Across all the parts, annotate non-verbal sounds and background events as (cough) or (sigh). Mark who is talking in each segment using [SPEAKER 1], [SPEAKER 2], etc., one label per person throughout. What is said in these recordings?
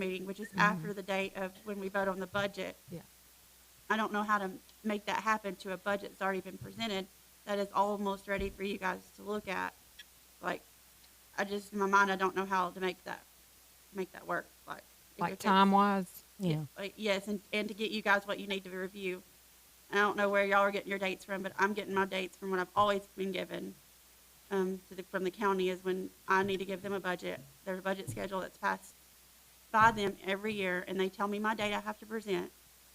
[SPEAKER 1] meeting, which is after the date of when we vote on the budget.
[SPEAKER 2] Mm-hmm. Yeah.
[SPEAKER 1] I don't know how to make that happen to a budget that's already been presented, that is almost ready for you guys to look at. Like, I just, in my mind, I don't know how to make that, make that work, like. if
[SPEAKER 2] like
[SPEAKER 1] it's-
[SPEAKER 2] time wise?
[SPEAKER 3] Yeah.
[SPEAKER 1] like, Uh, Yes, and, and to get you guys what you need to review. And I don't know where y'all are getting your dates from, but I'm getting my dates from what I've always been given. Um, to the, from the county is when I need to give them a budget. There's a budget schedule that's passed by them every year and they tell me my date I have to present.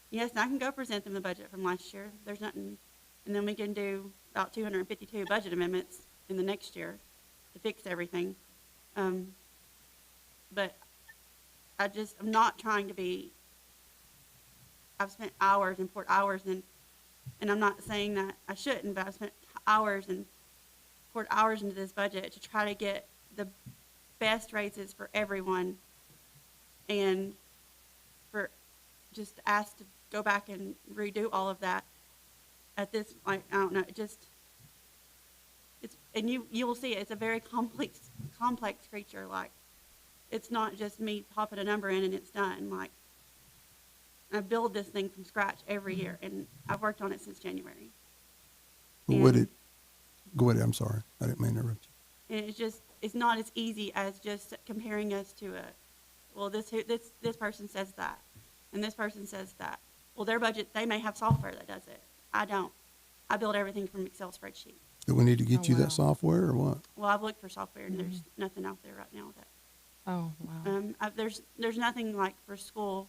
[SPEAKER 1] Yes, I can go present them the budget from last year. There's nothing. And then we can do about two hundred and fifty-two budget amendments in the next year to fix everything. Um, but I just, I'm not trying to be I've spent hours and poured hours in, and I'm not saying that I shouldn't, but I've spent hours and poured hours into this budget to try to get the best raises for everyone and for just asked to go back and redo all of that at this, like, I don't know, it just, it's, and you, you will see it's a very complex, complex creature, like, it's not just me popping a number in and it's done, like, I build this thing from scratch every year, and I've worked on it since January.
[SPEAKER 4] But Would it, go ahead, I'm sorry, I didn't mean to interrupt you.
[SPEAKER 1] And it's just, it's not as easy as just comparing us to a, well, this, who- this, this person says that, and this person says that. Well, their budget, they may have software that does it. I don't. I build everything from Excel spreadsheet.
[SPEAKER 4] Do we need to get
[SPEAKER 2] Oh,
[SPEAKER 4] you
[SPEAKER 2] wow.
[SPEAKER 4] that software or what?
[SPEAKER 1] Well, I've looked for software, and there's nothing out there right now that,
[SPEAKER 2] Oh, wow.
[SPEAKER 1] um, I, there's, there's nothing like for school.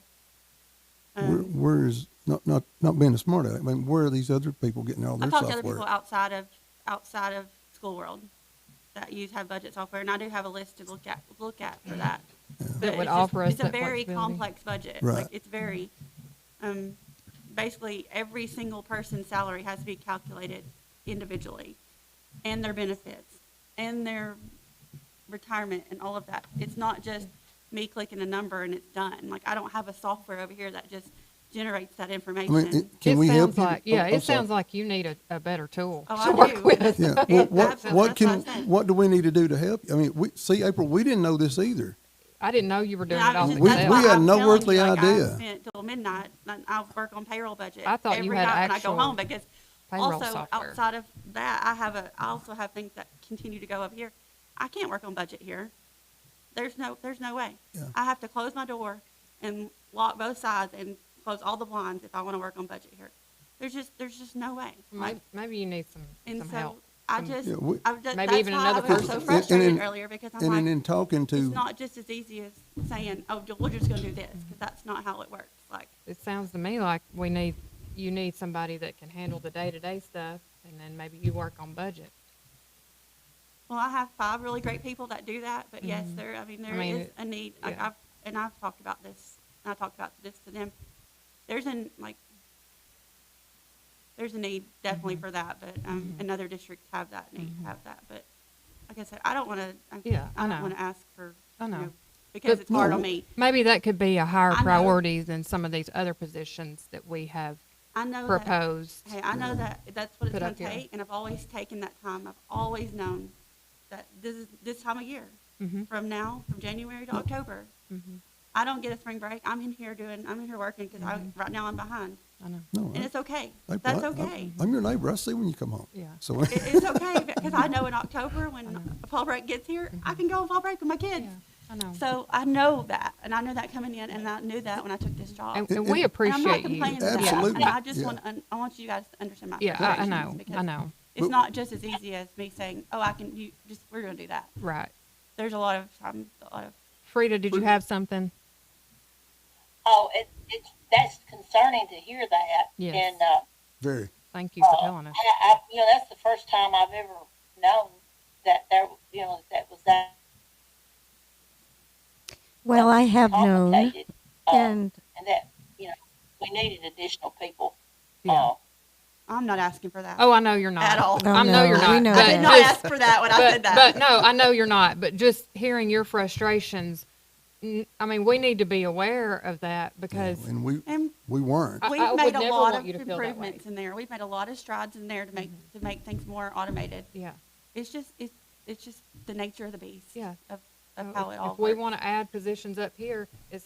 [SPEAKER 4] Where,
[SPEAKER 1] Um,
[SPEAKER 4] where is not not not being a smart aleck? I mean, where are these other people getting all
[SPEAKER 1] I
[SPEAKER 4] their
[SPEAKER 1] talk to other
[SPEAKER 4] software?
[SPEAKER 1] people outside of outside of school world that use have budget software, and I do have a list to look at look at for that. But
[SPEAKER 2] That would
[SPEAKER 1] it's just-
[SPEAKER 2] offer us
[SPEAKER 1] It's a
[SPEAKER 2] that
[SPEAKER 1] very
[SPEAKER 2] flexibility.
[SPEAKER 1] complex budget.
[SPEAKER 4] Right.
[SPEAKER 1] Like it's very, um, basically every single person's salary has to be calculated individually, and their benefits, and their retirement, and all of that. It's not just me clicking a number and it's done. Like I don't have a software over here that just generates that
[SPEAKER 4] I mean,
[SPEAKER 1] information.
[SPEAKER 4] it, can
[SPEAKER 2] it
[SPEAKER 4] we help
[SPEAKER 2] sounds
[SPEAKER 4] you?
[SPEAKER 2] like, yeah,
[SPEAKER 4] I'm- I'm
[SPEAKER 2] it
[SPEAKER 4] sorry.
[SPEAKER 2] sounds like you need a, a better tool
[SPEAKER 1] Oh,
[SPEAKER 2] to
[SPEAKER 1] I do.
[SPEAKER 2] work with.
[SPEAKER 4] Yeah. What what,
[SPEAKER 1] That's-
[SPEAKER 4] what
[SPEAKER 1] that's what
[SPEAKER 4] can
[SPEAKER 1] I said.
[SPEAKER 4] what do we need to do to help? you? I mean, we see April. We didn't know this either.
[SPEAKER 2] (laughs) I didn't know you were doing
[SPEAKER 1] Yeah,
[SPEAKER 2] it
[SPEAKER 1] I
[SPEAKER 2] off
[SPEAKER 1] was
[SPEAKER 2] the
[SPEAKER 1] just- that's
[SPEAKER 2] cuff.
[SPEAKER 4] We-
[SPEAKER 1] why
[SPEAKER 4] we had
[SPEAKER 1] I'm
[SPEAKER 4] no
[SPEAKER 1] telling you,
[SPEAKER 4] earthly
[SPEAKER 1] like, I
[SPEAKER 4] idea.
[SPEAKER 1] spent Till midnight, and I work on payroll budget.
[SPEAKER 2] I thought you
[SPEAKER 1] every
[SPEAKER 2] had
[SPEAKER 1] night when I go
[SPEAKER 2] actual
[SPEAKER 1] home because
[SPEAKER 2] payroll
[SPEAKER 1] also
[SPEAKER 2] software.
[SPEAKER 1] outside of that, I have a. I also have things that continue to go up here. I can't work on budget here. There's no. There's no way.
[SPEAKER 4] Yeah.
[SPEAKER 1] I have to close my door and lock both sides and close all the blinds if I want to work on budget here. There's just. There's just no way. Like,
[SPEAKER 2] Maybe, maybe you need some,
[SPEAKER 1] and
[SPEAKER 2] some
[SPEAKER 1] so
[SPEAKER 2] help.
[SPEAKER 1] I
[SPEAKER 2] some-
[SPEAKER 1] just.
[SPEAKER 4] Yeah, we-
[SPEAKER 1] I've just
[SPEAKER 2] Maybe
[SPEAKER 1] that's
[SPEAKER 2] even
[SPEAKER 1] why
[SPEAKER 2] another
[SPEAKER 1] I was so
[SPEAKER 4] person.
[SPEAKER 1] frustrated
[SPEAKER 4] And- and-
[SPEAKER 1] earlier because I'm
[SPEAKER 4] And
[SPEAKER 1] like,
[SPEAKER 4] then in talking to
[SPEAKER 1] it's not just as easy as saying, "Oh, we're just going to do this," because that's not how it works. Like,
[SPEAKER 2] It sounds to me like we need, you need somebody that can handle the day-to-day stuff and then maybe you work on budget.
[SPEAKER 1] well, I have five really great people that do that, but yes, there. I mean, there is
[SPEAKER 2] Mm-hmm. mean, it-
[SPEAKER 1] a need. Like,
[SPEAKER 2] yeah.
[SPEAKER 1] I've and I've talked about this. And I talked about this to them. There's an like. There's a need definitely
[SPEAKER 2] Mm-hmm.
[SPEAKER 1] for that, but um, and other districts have that need, have that. But like I said, I don't want to.
[SPEAKER 2] Yeah, I
[SPEAKER 1] I
[SPEAKER 2] know.
[SPEAKER 1] don't want to ask for.
[SPEAKER 2] I
[SPEAKER 1] you
[SPEAKER 2] know.
[SPEAKER 1] because
[SPEAKER 2] But-
[SPEAKER 1] it's hard on
[SPEAKER 4] No.
[SPEAKER 1] me.
[SPEAKER 2] Maybe that could be a higher
[SPEAKER 1] I know.
[SPEAKER 2] priority than some of these other positions that we have
[SPEAKER 1] I know. that-
[SPEAKER 2] proposed.
[SPEAKER 1] Hey, I know that, that's what it's
[SPEAKER 2] Put
[SPEAKER 1] gonna
[SPEAKER 2] up here.
[SPEAKER 1] take, and I've always taken that time, I've always known that this is, this time of year,
[SPEAKER 2] Mhm.
[SPEAKER 1] from now, from January to October.
[SPEAKER 2] Mhm.
[SPEAKER 1] I don't get a spring break, I'm in here doing, I'm in here working, because I,
[SPEAKER 2] Mm-hmm.
[SPEAKER 1] right now I'm behind,
[SPEAKER 2] I know.
[SPEAKER 4] no,
[SPEAKER 1] and
[SPEAKER 4] I-
[SPEAKER 1] it's okay,
[SPEAKER 4] April,
[SPEAKER 1] that's
[SPEAKER 4] I- I'm-
[SPEAKER 1] okay.
[SPEAKER 4] I'm your neighbor. I see when you come home.
[SPEAKER 2] Yeah.
[SPEAKER 4] So (laughs)
[SPEAKER 1] It, it's okay, because I know in October, when fall break gets here, I can go on fall break with my kids.
[SPEAKER 2] Yeah, I know.
[SPEAKER 1] So I know that, and I know that coming in, and I knew that when I took this job.
[SPEAKER 2] And,
[SPEAKER 4] It-
[SPEAKER 2] and
[SPEAKER 4] it-
[SPEAKER 2] we
[SPEAKER 1] uh, And I'm not
[SPEAKER 2] appreciate you.
[SPEAKER 1] complaining about that.
[SPEAKER 4] Absolutely.
[SPEAKER 1] And I just
[SPEAKER 4] Yeah.
[SPEAKER 1] want, to I want you guys to understand my
[SPEAKER 2] Yeah, I, I
[SPEAKER 1] frustrations
[SPEAKER 2] know, I
[SPEAKER 1] because
[SPEAKER 2] know,
[SPEAKER 1] It's
[SPEAKER 4] But-
[SPEAKER 1] not just as easy as me saying, "Oh, I can." You just we're gonna do that.
[SPEAKER 2] right.
[SPEAKER 1] There's a lot of time, a lot of
[SPEAKER 2] Frida, did you have something?
[SPEAKER 5] Oh, it, it's that's concerning to hear that.
[SPEAKER 2] Yes.
[SPEAKER 5] And uh,
[SPEAKER 4] very.
[SPEAKER 2] Thank you for telling
[SPEAKER 5] I,
[SPEAKER 2] us.
[SPEAKER 5] I, you know, that's the first time I've ever known that there, you know, that was that
[SPEAKER 3] Well, I have known,
[SPEAKER 5] complicated, uh,
[SPEAKER 3] and
[SPEAKER 5] and that you know we needed additional people.
[SPEAKER 2] Yeah.
[SPEAKER 5] Uh,
[SPEAKER 1] I'm not asking for that
[SPEAKER 2] Oh, I know you're not.
[SPEAKER 1] at all.
[SPEAKER 3] Oh,
[SPEAKER 2] I know you're
[SPEAKER 3] no, we
[SPEAKER 2] not.
[SPEAKER 3] know
[SPEAKER 2] but
[SPEAKER 1] I did
[SPEAKER 3] that.
[SPEAKER 1] not
[SPEAKER 2] just-
[SPEAKER 1] ask for that when I said
[SPEAKER 2] But,
[SPEAKER 1] that.
[SPEAKER 2] but no, I know you're not. But just hearing your frustrations, n- I mean, we need to be aware of that because
[SPEAKER 4] And we
[SPEAKER 1] and
[SPEAKER 4] we weren't.
[SPEAKER 2] I-
[SPEAKER 1] we've
[SPEAKER 2] I would
[SPEAKER 1] made a
[SPEAKER 2] never
[SPEAKER 1] lot
[SPEAKER 2] want
[SPEAKER 1] of
[SPEAKER 2] you to feel that way. Mm-hmm.
[SPEAKER 1] improvements in there. We've made a lot of strides in there to make to make things more automated.
[SPEAKER 2] yeah,
[SPEAKER 1] It's just it's it's just the nature of the beast.
[SPEAKER 2] Yeah.
[SPEAKER 1] Of, of how it all
[SPEAKER 2] if we
[SPEAKER 1] works.
[SPEAKER 2] want to add positions up here, it's